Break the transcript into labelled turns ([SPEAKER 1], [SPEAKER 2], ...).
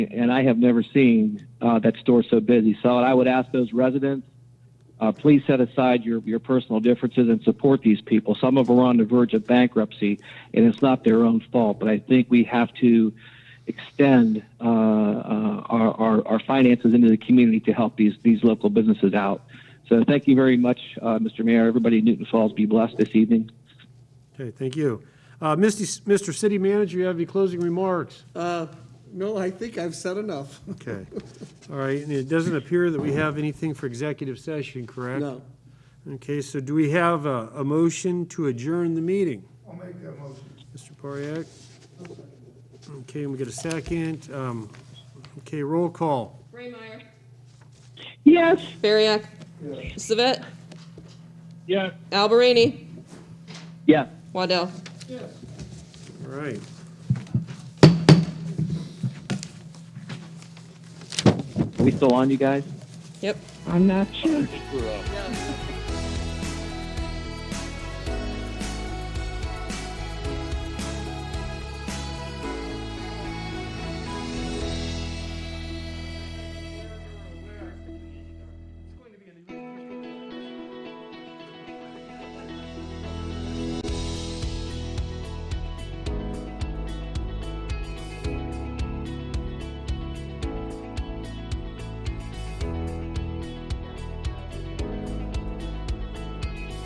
[SPEAKER 1] and I have never seen uh, that store so busy. So I would ask those residents, uh, please set aside your, your personal differences and support these people. Some of them are on the verge of bankruptcy, and it's not their own fault. But I think we have to extend uh, uh, our, our, our finances into the community to help these, these local businesses out. So thank you very much, uh, Mr. Mayor. Everybody in Newton Falls, be blessed this evening.
[SPEAKER 2] Okay, thank you. Uh, Misty, Mr. City Manager, you have any closing remarks?
[SPEAKER 3] Uh, No, I think I've said enough.
[SPEAKER 2] Okay. All right, and it doesn't appear that we have anything for executive session, correct?
[SPEAKER 3] No.
[SPEAKER 2] Okay, so do we have a, a motion to adjourn the meeting?
[SPEAKER 4] I'll make that motion.
[SPEAKER 2] Mr. Pariac? Okay, and we get a second. Um, Okay, roll call.
[SPEAKER 5] Raymeyer.
[SPEAKER 6] Yes.
[SPEAKER 5] Bariak. Savet.
[SPEAKER 4] Yeah.
[SPEAKER 5] Alberini.
[SPEAKER 1] Yes.
[SPEAKER 5] Waddell.
[SPEAKER 2] All right.
[SPEAKER 1] Are we still on, you guys?
[SPEAKER 5] Yep.
[SPEAKER 6] I'm not sure.